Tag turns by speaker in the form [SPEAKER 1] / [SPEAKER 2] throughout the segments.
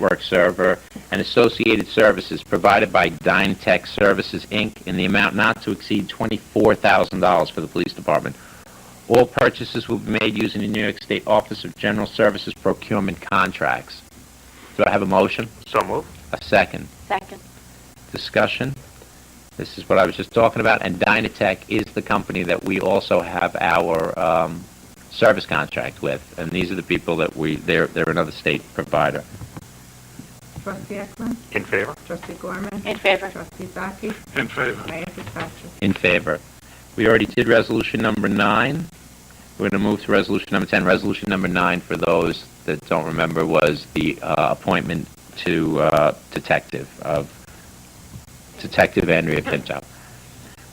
[SPEAKER 1] network server and associated services provided by DyneTech Services, Inc., in the amount not to exceed $24,000 for the police department. All purchases will be made using the New York State Office of General Services procurement contracts. Do I have a motion?
[SPEAKER 2] So move.
[SPEAKER 1] A second?
[SPEAKER 3] Second.
[SPEAKER 1] discussion. This is what I was just talking about, and Dynatech is the company that we also have our um, service contract with, and these are the people that we, they're, they're another state provider.
[SPEAKER 4] Trustee Ecklin.
[SPEAKER 2] In favor?
[SPEAKER 4] Trustee Gorman.
[SPEAKER 3] In favor.
[SPEAKER 4] Trustee Zaki.
[SPEAKER 2] In favor.
[SPEAKER 4] Mayor Patrache.
[SPEAKER 1] In favor. We already did resolution number nine. We're going to move to resolution number 10. Resolution number nine, for those that don't remember, was the uh, appointment to uh, detective of Detective Andrea Pinto.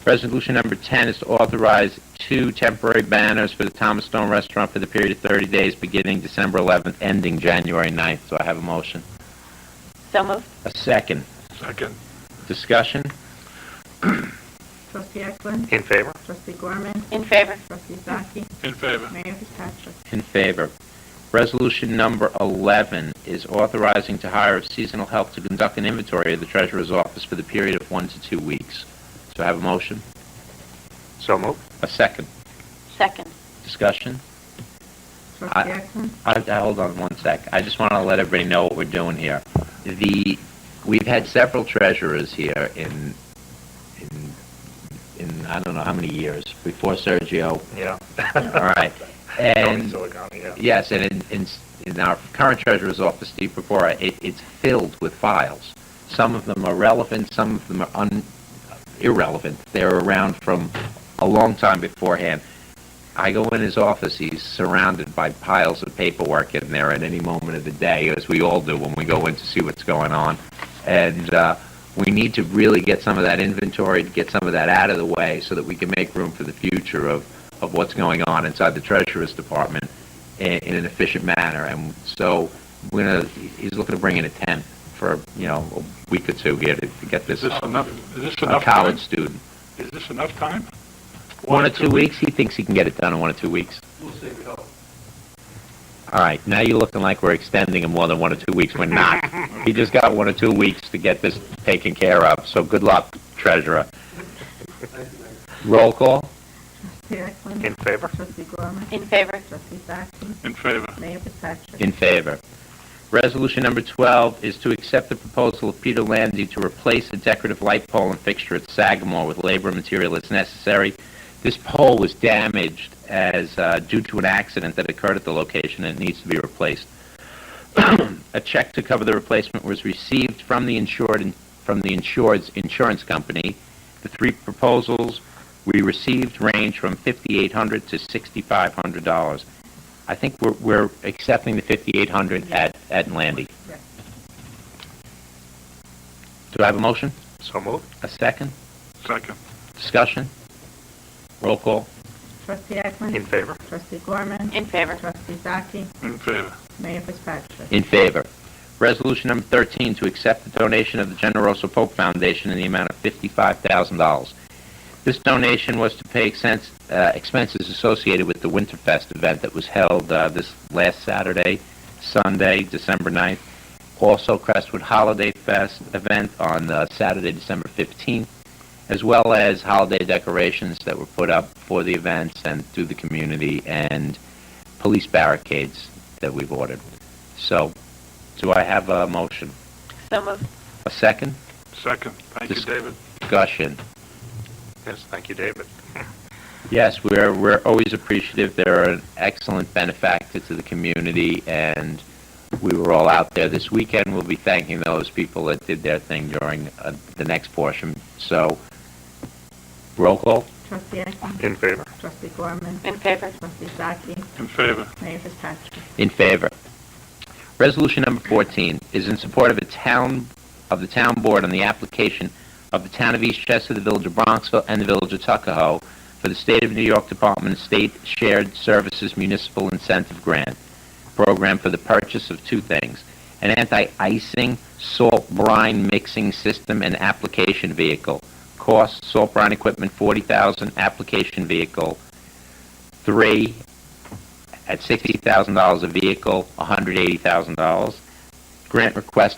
[SPEAKER 1] Resolution number 10 is to authorize two temporary banners for the Thomas Stone Restaurant for the period of 30 days, beginning December 11th, ending January 9th. Do I have a motion?
[SPEAKER 3] So moved.
[SPEAKER 1] A second.
[SPEAKER 2] Second.
[SPEAKER 1] Discussion?
[SPEAKER 4] Trustee Ecklin.
[SPEAKER 2] In favor?
[SPEAKER 4] Trustee Gorman.
[SPEAKER 3] In favor.
[SPEAKER 4] Trustee Zaki.
[SPEAKER 2] In favor.
[SPEAKER 4] Mayor Patrache.
[SPEAKER 1] In favor. Resolution number 11 is authorizing to hire of seasonal help to conduct an inventory of the treasurer's office for the period of one to two weeks. So I have a motion?
[SPEAKER 2] So move.
[SPEAKER 1] A second.
[SPEAKER 3] Second.
[SPEAKER 1] Discussion?
[SPEAKER 4] Trustee Ecklin.
[SPEAKER 1] I, I- hold on one sec. I just want to let everybody know what we're doing here. The, we've had several treasurers here in, in, in, I don't know how many years, before Sergio.
[SPEAKER 2] Yeah.
[SPEAKER 1] All right. And
[SPEAKER 2] And.
[SPEAKER 1] Yes, and in, in, in our current treasurer's office, Steve Pupora, it, it's filled with files. Some of them are relevant, some of them are un, irrelevant. They're around from a long time beforehand. I go in his office, he's surrounded by piles of paperwork in there at any moment of the day, as we all do when we go in to see what's going on. And uh, we need to really get some of that inventory, get some of that out of the way so that we can make room for the future of, of what's going on inside the Treasurer's Department in, in an efficient manner. And so we're gonna, he's looking to bring in a tent for, you know, a week or two here to, to get this,
[SPEAKER 5] Is this
[SPEAKER 1] a
[SPEAKER 5] enough, Uh, is this enough time?
[SPEAKER 1] college student.
[SPEAKER 5] Is this enough time?
[SPEAKER 1] One or two weeks, he thinks he can get it done in one or two weeks.
[SPEAKER 5] We'll see, we hope.
[SPEAKER 1] All right, now you're looking like we're extending him more than one or two weeks. We're not. He just got one or two weeks to get this taken care of, so good luck, treasurer. Roll call?
[SPEAKER 4] Trustee Ecklin.
[SPEAKER 2] In favor?
[SPEAKER 4] Trustee Gorman.
[SPEAKER 3] In favor.
[SPEAKER 4] Trustee Zaki.
[SPEAKER 5] In favor,
[SPEAKER 4] Mayor Patrache.
[SPEAKER 1] In favor. Resolution number 12 is to accept the proposal of Peter Landy to replace the decorative light pole and fixture at Sagamore with labor and material as necessary. This pole was damaged as, uh, due to an accident that occurred at the location and it needs to be replaced. A check to cover the replacement was received from the insured, from the insured's insurance company. The three proposals we received range from $5,800 to $6,500. I think we're, we're accepting the 5,800 at, at Landy.
[SPEAKER 4] Yes.
[SPEAKER 1] Do I have a motion?
[SPEAKER 2] So move.
[SPEAKER 1] A second?
[SPEAKER 5] second.
[SPEAKER 1] Discussion? Roll call?
[SPEAKER 4] Trustee Ecklin.
[SPEAKER 2] In favor?
[SPEAKER 4] Trustee Gorman.
[SPEAKER 3] In favor.
[SPEAKER 4] Trustee Zaki.
[SPEAKER 5] In favor,
[SPEAKER 4] Mayor Patrache.
[SPEAKER 1] In favor. Resolution number 13, to accept the donation of the Generoso Pope Foundation in the amount of $55,000. This donation was to pay expense- uh, expenses associated with the Winterfest event that was held uh, this last Saturday, Sunday, December 9th. Also Crestwood Holiday Fest event on uh, Saturday, December 15th, as well as holiday decorations that were put up for the events and through the community and police barricades that we've ordered. So, do I have a motion?
[SPEAKER 3] So moved.
[SPEAKER 1] A second?
[SPEAKER 5] second. Thank you,
[SPEAKER 1] Dis-
[SPEAKER 5] David.
[SPEAKER 1] Discussion.
[SPEAKER 2] Yes, thank you, David.
[SPEAKER 1] Yes, we're, we're always appreciative. They're an excellent benefactor to the community, and we were all out there this weekend. We'll be thanking those people that did their thing during uh, the next portion. So, roll call?
[SPEAKER 4] Trustee Ecklin.
[SPEAKER 2] In favor?
[SPEAKER 4] Trustee Gorman.
[SPEAKER 3] In favor.
[SPEAKER 4] Trustee Zaki.
[SPEAKER 5] In favor,
[SPEAKER 4] Mayor Patrache.
[SPEAKER 1] In favor. Resolution number 14 is in support of a town, of the town board on the application of the town of Eastchester, the village of Bronxville, and the village of Tuckahoe for the state of New York Department of State Shared Services Municipal Incentive Grant Program for the purchase of two things, an anti-icing salt brine mixing system and application vehicle. Cost, salt brine equipment, 40000 application vehicle, three, at $60,000 a vehicle, $180,000. grant request